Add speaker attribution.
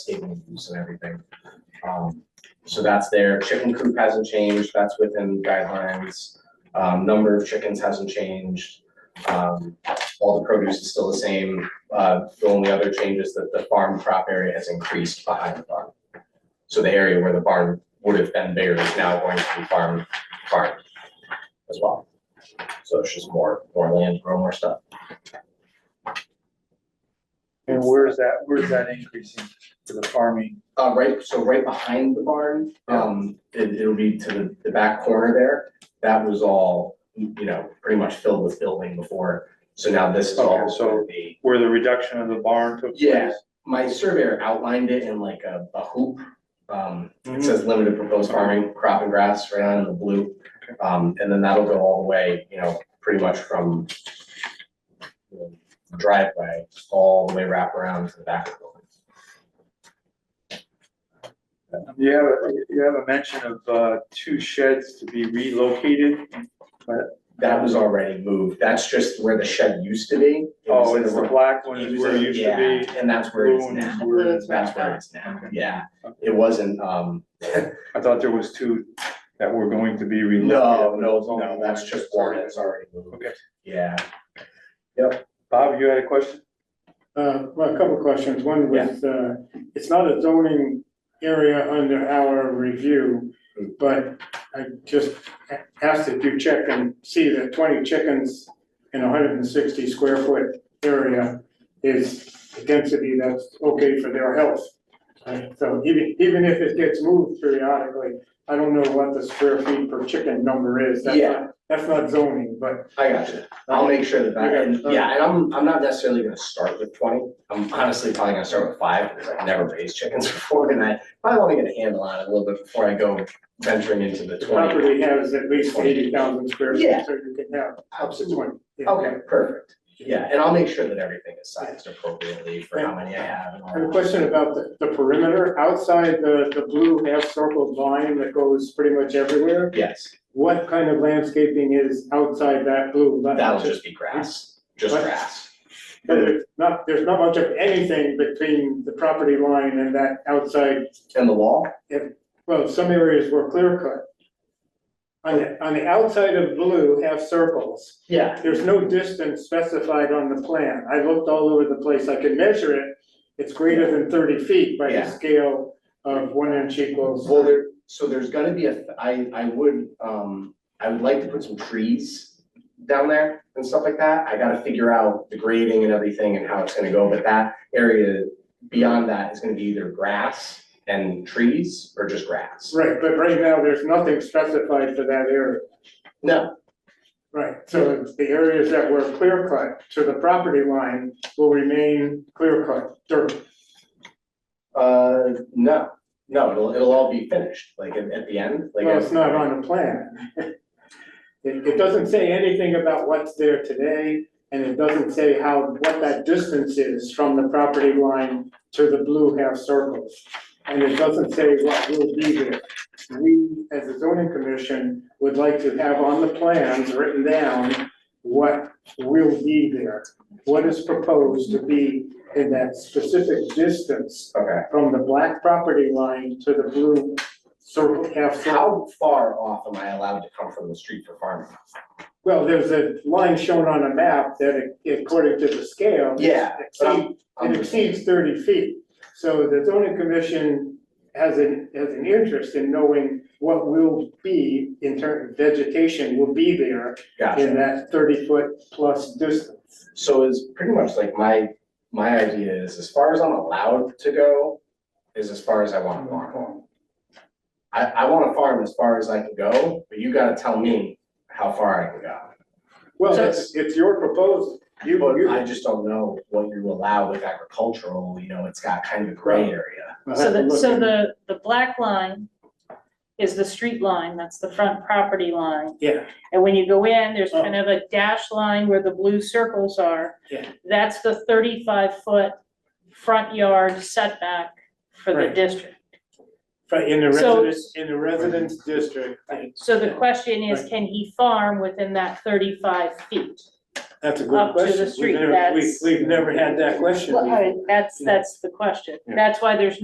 Speaker 1: statement of use and everything. Um, so that's there. Chicken coop hasn't changed. That's within guidelines. Um, number of chickens hasn't changed. Um, all the produce is still the same. Uh, the only other change is that the farm crop area has increased behind the barn. So the area where the barn would have been bigger is now going to be farm, farm as well. So it's just more, more land, grow more stuff.
Speaker 2: And where's that, where's that increasing for the farming?
Speaker 1: Uh, right, so right behind the barn, um, it, it'll be to the, the back corner there. That was all, you know, pretty much filled with building before. So now this is all
Speaker 2: Okay, so-
Speaker 1: gonna be,
Speaker 2: Where the reduction of the barn took place?
Speaker 1: Yeah. my surveyor outlined it in like a, a hoop. Um, it says limited proposed farming, crop and grass, right on in the blue. Um, and then that'll go all the way, you know, pretty much from the driveway, all the way wrap around to the back of the building.
Speaker 2: You have, a- you have a mention of, uh, two sheds to be relocated.
Speaker 1: That was already moved, that's just where the shed used to be. It was
Speaker 2: Oh,
Speaker 1: in
Speaker 2: it's
Speaker 1: the-
Speaker 2: the black one is where it used to be.
Speaker 1: Yeah, and that's where it's
Speaker 2: Blue one is
Speaker 1: now,
Speaker 2: where it
Speaker 3: Blue.
Speaker 2: is.
Speaker 1: that's where it's now, yeah,
Speaker 2: Okay.
Speaker 1: it wasn't, um,
Speaker 2: I thought there was two that were going to be relocated.
Speaker 1: no, no,
Speaker 2: but it was only
Speaker 1: no, that's just
Speaker 2: one.
Speaker 1: one that's already moved,
Speaker 2: Okay.
Speaker 1: yeah.
Speaker 2: Bob, you had a question?
Speaker 4: Uh, well, a couple of questions. One was, uh, it's not a zoning area under our review, but I just a- asked that you check and see that twenty chickens in a hundred and sixty square foot area is a density that's okay for their health. Right, so even, even if it gets moved periodically, I don't know what the square feet per chicken number is. That's
Speaker 1: Yeah.
Speaker 4: not- That's not zoning, but.
Speaker 1: I got you, I'll make sure that that,
Speaker 4: Okay.
Speaker 1: and, yeah, and I'm, I'm not necessarily gonna start with twenty, I'm honestly probably gonna start with five, because I've never raised chickens before, and I probably wanna get a handle on it a little bit before I go venturing into the
Speaker 4: The
Speaker 1: twenty.
Speaker 4: property has at least eighty thousand square
Speaker 1: Yeah.
Speaker 4: feet, so you can have
Speaker 1: Absolutely.
Speaker 4: twenty. yeah.
Speaker 1: Okay, perfect, yeah, and I'll make sure that everything is sized appropriately for how many I have and all
Speaker 4: I have a
Speaker 1: that.
Speaker 4: question about the, the perimeter, outside the, the blue half circled line that goes pretty much everywhere.
Speaker 1: Yes,
Speaker 4: What kind of landscaping is outside that blue? line?
Speaker 1: that'll just be grass, just
Speaker 4: What?
Speaker 1: grass.
Speaker 4: But there's not, there's not much of anything between the property line and that outside,
Speaker 1: And the wall?
Speaker 4: well, some areas were clear cut. On the, on the outside of blue half circles,
Speaker 1: Yeah.
Speaker 4: There's no distance specified on the plan. I looked all over the place. I could measure it. It's greater than thirty feet by
Speaker 1: Yeah.
Speaker 4: the scale of one inch equals.
Speaker 1: Well, there, so there's gonna be a, I, I would, um, I would like to put some trees down there and stuff like that. I gotta figure out the grading and everything and how it's gonna go, but that area beyond that is gonna be either grass and trees or just grass.
Speaker 4: Right, but right now, there's nothing specified for that area.
Speaker 1: No,
Speaker 4: Right, so it's the areas that were clear cut to the property line will remain clear cut, dirt.
Speaker 1: uh, no, no, it'll, it'll all be finished, like at, at the end, like.
Speaker 4: Well, it's not on the plan. It, it doesn't say anything about what's there today, and it doesn't say how, what that distance is from the property line to the blue half circles. And it doesn't say what will be there. We, as a zoning commission, would like to have on the plans written down what will be there. What is proposed to be in that specific distance
Speaker 1: Okay,
Speaker 4: from the black property line to the blue circle, half circle.
Speaker 1: how far off am I allowed to come from the street for farming?
Speaker 4: Well, there's a line shown on a map that according to the scale.
Speaker 1: Yeah, but I'm-
Speaker 4: exceed- It exceeds thirty feet. So the zoning commission has an, has an interest in knowing what will be in terms of vegetation will be there
Speaker 1: Gotcha.
Speaker 4: in that thirty foot plus distance.
Speaker 1: So is pretty much like my, my idea is as far as I'm allowed to go is as far as I want to farm. I, I want to farm as far as I can go, but you gotta tell me how far I can go.
Speaker 4: Well,
Speaker 1: So-
Speaker 4: it's, it's your proposal. You,
Speaker 1: But
Speaker 4: you.
Speaker 1: I just don't know what you allow with agricultural, you know, it's got kind of a gray area.
Speaker 4: I'll
Speaker 3: So
Speaker 4: have to
Speaker 3: the,
Speaker 4: look
Speaker 3: so
Speaker 4: at-
Speaker 3: the, the black line is the street line, that's the front property line.
Speaker 4: Yeah,
Speaker 3: And when you go in, there's kind of a dash line where the blue circles are.
Speaker 4: Yeah.
Speaker 3: That's the thirty-five foot front yard setback for the
Speaker 4: Right.
Speaker 3: district.
Speaker 4: but in the
Speaker 3: So-
Speaker 4: residence, in the residence district,
Speaker 3: So the question is, can he farm within that thirty-five feet?
Speaker 4: that's a
Speaker 3: Up
Speaker 4: good
Speaker 3: to the
Speaker 4: question. We've
Speaker 3: street,
Speaker 4: never- we-
Speaker 3: that's-
Speaker 4: We've never had that question.
Speaker 3: Well, all right, that's,
Speaker 4: Yeah.
Speaker 3: that's the question.
Speaker 4: Yeah.
Speaker 3: That's why there's